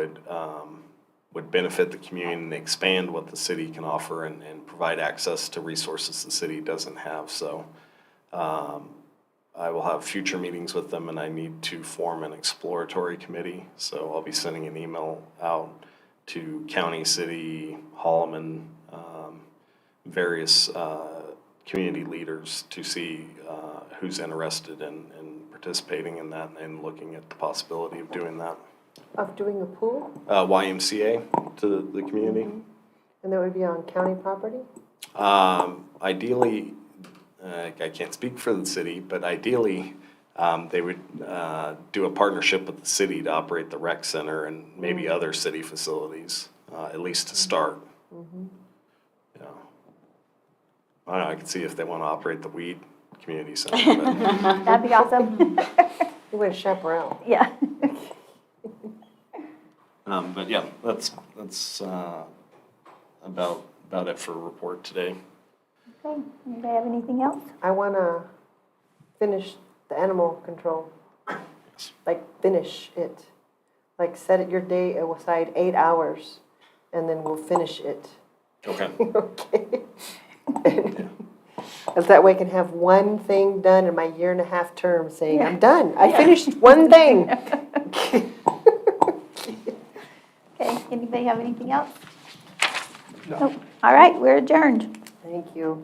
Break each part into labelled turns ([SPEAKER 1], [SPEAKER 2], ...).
[SPEAKER 1] would, um, would benefit the community and expand what the city can offer and, and provide access to resources the city doesn't have, so. um, I will have future meetings with them and I need to form an exploratory committee, so I'll be sending an email out to county, city, Holloman, um, various, uh, community leaders to see, uh, who's interested in, in participating in that and looking at the possibility of doing that
[SPEAKER 2] Of doing a pool,
[SPEAKER 1] uh, YMCA to the- the community.
[SPEAKER 2] and that would be on county property?
[SPEAKER 1] Um, ideally, uh, I can't speak for the city, but ideally, um, they would uh, do a partnership with the city to operate the rec center and maybe other city facilities, uh, at least to start. Yeah. I don't know, I can see if they want to operate the weed community center, but.
[SPEAKER 3] That'd be awesome.
[SPEAKER 2] You want a chaperone?
[SPEAKER 3] Yeah.
[SPEAKER 1] Um, but yeah, that's, that's, uh, about, about it for report today.
[SPEAKER 3] Okay, anybody have anything else?
[SPEAKER 2] I want to finish the animal control. Like, finish it. Like, set it your day aside eight hours, and then we'll finish it.
[SPEAKER 1] Okay.
[SPEAKER 2] Okay? As that way I can have one thing done in my year and a half term saying, I'm done. I finished one thing.
[SPEAKER 3] Okay, anybody have anything else?
[SPEAKER 1] No.
[SPEAKER 3] Nope. All right, we're adjourned.
[SPEAKER 2] Thank you.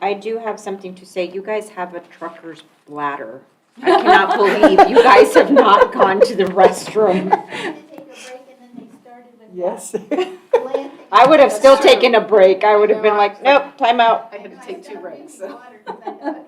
[SPEAKER 4] I do have something to say. You guys have a trucker's bladder. I cannot believe you guys have not gone to the restroom.
[SPEAKER 5] They had to take a break and then they started with
[SPEAKER 2] Yes.
[SPEAKER 5] that land.
[SPEAKER 4] I would have still taken a break. I would have been like, nope, time out.
[SPEAKER 5] I had to take two breaks, so.